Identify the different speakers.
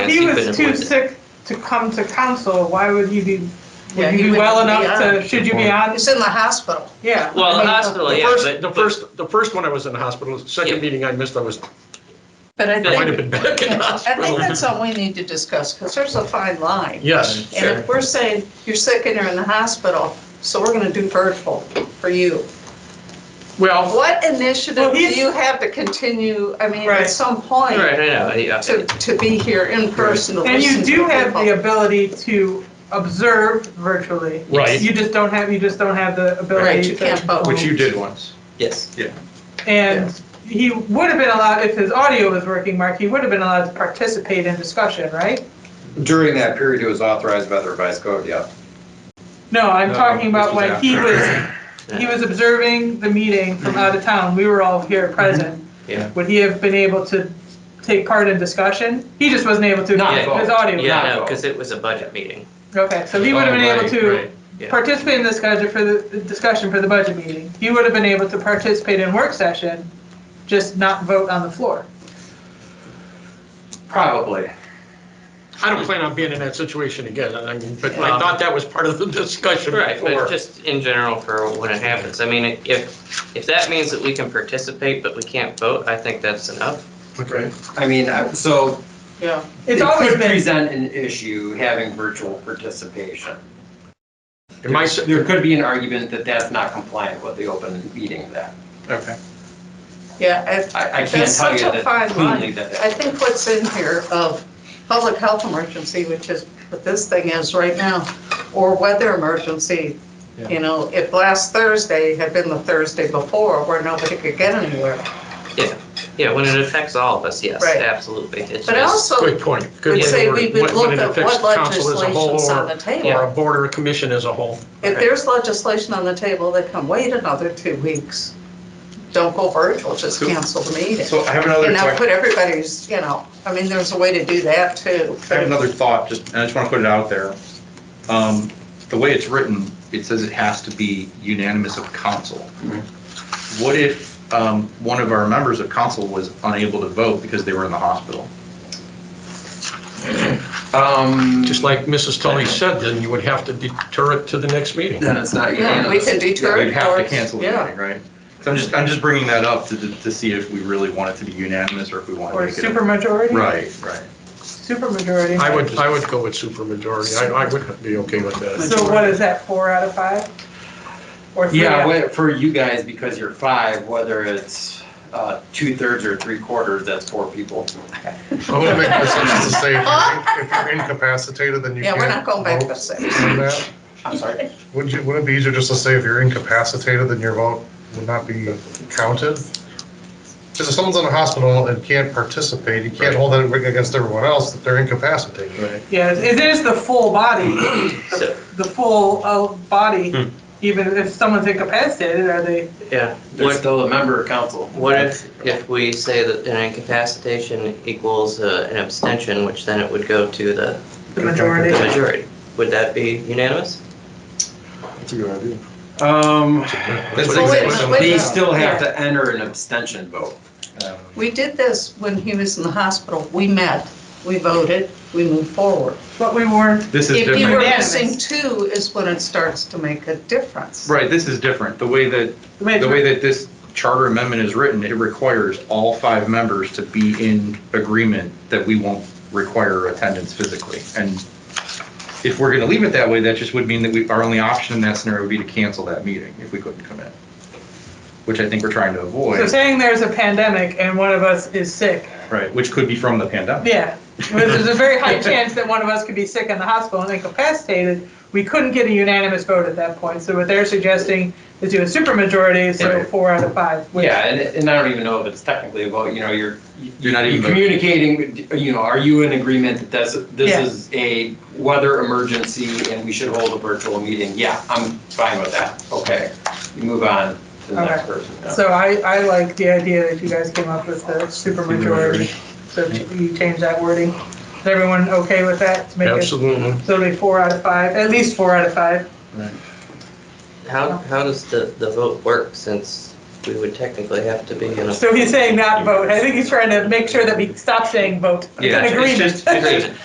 Speaker 1: If
Speaker 2: He
Speaker 1: he
Speaker 2: was
Speaker 1: couldn't
Speaker 2: too
Speaker 1: win it.
Speaker 2: sick to come to council, why would he be,
Speaker 3: Yeah,
Speaker 2: would
Speaker 3: he
Speaker 2: you be
Speaker 3: wouldn't
Speaker 2: well
Speaker 3: be
Speaker 2: enough
Speaker 3: on.
Speaker 2: to, should you be on?
Speaker 3: It's in the hospital.
Speaker 2: Yeah.
Speaker 1: Well,
Speaker 3: I
Speaker 1: the
Speaker 3: mean,
Speaker 1: hospital,
Speaker 4: The
Speaker 1: yeah,
Speaker 4: first-
Speaker 1: but-
Speaker 4: The first, the first one I was in the hospital, the second
Speaker 1: Yeah.
Speaker 4: meeting I missed, I was,
Speaker 3: But I
Speaker 4: might have
Speaker 3: think,
Speaker 4: been back in the
Speaker 3: I think
Speaker 4: hospital.
Speaker 3: that's all we need to discuss, because there's a fine line.
Speaker 4: Yes,
Speaker 3: And if we're saying you're sick and you're in the hospital, so we're gonna do virtual for you.
Speaker 4: well,
Speaker 3: What initiative
Speaker 2: Well,
Speaker 3: do
Speaker 2: he's-
Speaker 3: you have to continue, I mean,
Speaker 2: Right.
Speaker 3: at some point,
Speaker 1: Right, I know, yeah.
Speaker 3: to, to be here in person to
Speaker 2: And you
Speaker 3: listen to
Speaker 2: do have the
Speaker 3: people?
Speaker 2: ability to observe virtually.
Speaker 4: Right.
Speaker 2: You just don't have, you just don't have the
Speaker 3: Right,
Speaker 2: ability
Speaker 3: you can't
Speaker 2: to.
Speaker 3: vote.
Speaker 4: which you did once.
Speaker 1: Yes.
Speaker 2: And he would have been allowed, if his audio was working, Mark, he would have been allowed to participate in discussion, right?
Speaker 5: During that period, it was authorized by the revised code, yeah.
Speaker 2: No, I'm
Speaker 5: No,
Speaker 2: talking about
Speaker 5: this was
Speaker 2: when he
Speaker 5: after.
Speaker 2: was, he was observing the meeting from out of town. We were all here present.
Speaker 1: Mm-hmm. Yeah.
Speaker 2: Would he have been able to take part in discussion? He just wasn't able to.
Speaker 1: Not
Speaker 2: His
Speaker 5: vote.
Speaker 2: audio. was out.
Speaker 1: Yeah, no,
Speaker 5: vote.
Speaker 1: because it was a budget meeting.
Speaker 2: Okay, so he would have been
Speaker 4: Oh,
Speaker 2: able
Speaker 4: right,
Speaker 2: to
Speaker 4: right.
Speaker 1: yeah.
Speaker 2: participate in this budget for the, the discussion for the budget meeting. He would have been able to participate in work session, just not vote on the floor.
Speaker 5: Probably.
Speaker 4: I don't plan on being in that situation again, I mean, but
Speaker 1: Yeah.
Speaker 4: I thought that was part of the discussion
Speaker 1: Right,
Speaker 4: before.
Speaker 1: but just in general for when it happens. I mean, if, if that means that we can participate, but we can't vote, I think that's enough.
Speaker 4: Okay.
Speaker 5: I mean, I- so
Speaker 3: Yeah,
Speaker 5: it
Speaker 2: It's always
Speaker 5: could
Speaker 2: been,
Speaker 5: present an issue having virtual participation.
Speaker 4: In my, s-
Speaker 5: There could be an argument that that's not compliant with the open meeting then.
Speaker 4: okay.
Speaker 3: yeah. I-
Speaker 5: I, I can't
Speaker 3: That's
Speaker 5: tell you
Speaker 3: such a fine
Speaker 5: that cleanly
Speaker 3: line.
Speaker 5: that.
Speaker 3: I
Speaker 5: that-
Speaker 3: think what's in here of public health emergency, which is what this thing is right now, or weather emergency. You know, if last Thursday had been the Thursday before where nobody could get anywhere.
Speaker 1: Yeah, when it affects all of us, yes,
Speaker 3: Right.
Speaker 1: absolutely. It's
Speaker 3: But I
Speaker 1: just-
Speaker 3: also
Speaker 4: Good point. Good
Speaker 3: would
Speaker 4: way to
Speaker 3: say
Speaker 4: word
Speaker 3: we
Speaker 4: it.
Speaker 3: would
Speaker 4: When-
Speaker 3: look
Speaker 4: when it
Speaker 3: at
Speaker 4: affects
Speaker 3: what
Speaker 4: council as a whole
Speaker 3: legislation's on
Speaker 4: or-
Speaker 3: the
Speaker 4: Or
Speaker 3: table.
Speaker 4: a board or a commission as a whole.
Speaker 3: If
Speaker 4: Okay.
Speaker 3: there's legislation on the table that can wait another two weeks, don't go virtual, just cancel the meeting.
Speaker 6: So I have another,
Speaker 3: And now
Speaker 6: que-
Speaker 3: put everybody's, you know, I mean, there's a way to do that too.
Speaker 6: I have another thought, just, and I just want to put it out there. Um, The way it's written, it says it has to be unanimous of council. What if um, one of our members of council was unable to vote because they were in the hospital?
Speaker 5: Um,
Speaker 4: Just like Mrs. Tully said, then you would have to deter it to the next meeting.
Speaker 5: Then it's
Speaker 3: Yeah,
Speaker 5: not
Speaker 3: we
Speaker 5: unanimous.
Speaker 3: can deter
Speaker 6: We'd
Speaker 3: it.
Speaker 6: have
Speaker 3: or-
Speaker 6: to cancel the
Speaker 3: yeah.
Speaker 6: meeting, right? So I'm just, I'm just bringing that up to, to see if we really want it to be unanimous or if we want to
Speaker 2: or
Speaker 6: make it. a-
Speaker 2: supermajority.
Speaker 6: Right, right.
Speaker 2: Supermajority.
Speaker 4: I would, I would go with supermajority. I, I would be okay with that.
Speaker 2: So what is that, four out of five? Or three
Speaker 5: Yeah,
Speaker 2: out?
Speaker 5: wh- for you guys, because you're five, whether it's uh, two-thirds or three-quarters, that's four people.
Speaker 7: I would make decisions to say if you're in- if you're incapacitated, then you
Speaker 3: Yeah,
Speaker 7: can't.
Speaker 3: we're not going back
Speaker 7: vote
Speaker 3: to six.
Speaker 7: on that.
Speaker 5: I'm sorry.
Speaker 7: Would you, would it be easier just to say if you're incapacitated, then your vote would not be counted? Because if someone's in a hospital and can't participate, you can't hold that against everyone else that they're incapacitated.
Speaker 4: Right.
Speaker 2: Yeah, it is the full body,
Speaker 1: So-
Speaker 2: the full uh, body, even if someone's incapacitated, are they?
Speaker 1: Yeah.
Speaker 5: They're
Speaker 1: What,
Speaker 5: still a member of council.
Speaker 1: what if, if we say that an incapacitation equals uh, an abstention, which then it would go to the
Speaker 2: The majority.
Speaker 1: the majority? Would that be unanimous?
Speaker 4: That's a good idea.
Speaker 5: Um,
Speaker 4: That's
Speaker 3: Well, wait a minute, wait a
Speaker 5: they
Speaker 3: minute.
Speaker 5: still have to enter an abstention vote.
Speaker 3: We did this when he was in the hospital. We met, we voted, we moved forward.
Speaker 2: But we weren't,
Speaker 6: This is
Speaker 3: If
Speaker 6: different.
Speaker 3: you were
Speaker 2: Unanimous.
Speaker 3: missing two is when it starts to make a difference.
Speaker 6: Right, this is different. The way that,
Speaker 2: the major-
Speaker 6: the way that this charter amendment is written, it requires all five members to be in agreement that we won't require attendance physically. And if we're going to leave it that way, that just would mean that we, our only option in that scenario would be to cancel that meeting if we couldn't come in, which I think we're trying to
Speaker 2: so
Speaker 6: avoid,
Speaker 2: saying there's a pandemic and one of us is sick,
Speaker 6: right, which could be from the pandemic.
Speaker 2: yeah. There's a very high chance that one of us could be sick in the hospital and incapacitated. We couldn't get a unanimous vote at that point, so what they're suggesting is do a supermajority, so
Speaker 6: Right.
Speaker 2: four out of five. which-
Speaker 5: Yeah, and, and I don't even know if it's technically a vote, you know, you're,
Speaker 6: You're not
Speaker 5: you're
Speaker 6: even.
Speaker 5: communicating, you know, are you in agreement that this, this
Speaker 2: Yeah.
Speaker 5: is a weather emergency and we should hold a virtual meeting? Yeah, I'm fine with that. Okay, you move on to the next person. yeah.
Speaker 2: So I, I like the idea that you guys came up with the supermajority, so you change that wording. Is everyone okay with that? To make it-
Speaker 4: Absolutely.
Speaker 2: So it'll be four out of five, at least four out of five.
Speaker 1: How, how does the, the vote work since we would technically have to be in a.
Speaker 2: So he's saying not vote. I think he's trying to make sure that we stop saying vote. It's
Speaker 6: Yeah,
Speaker 2: an
Speaker 6: it's
Speaker 2: agreement.
Speaker 6: just- it's just-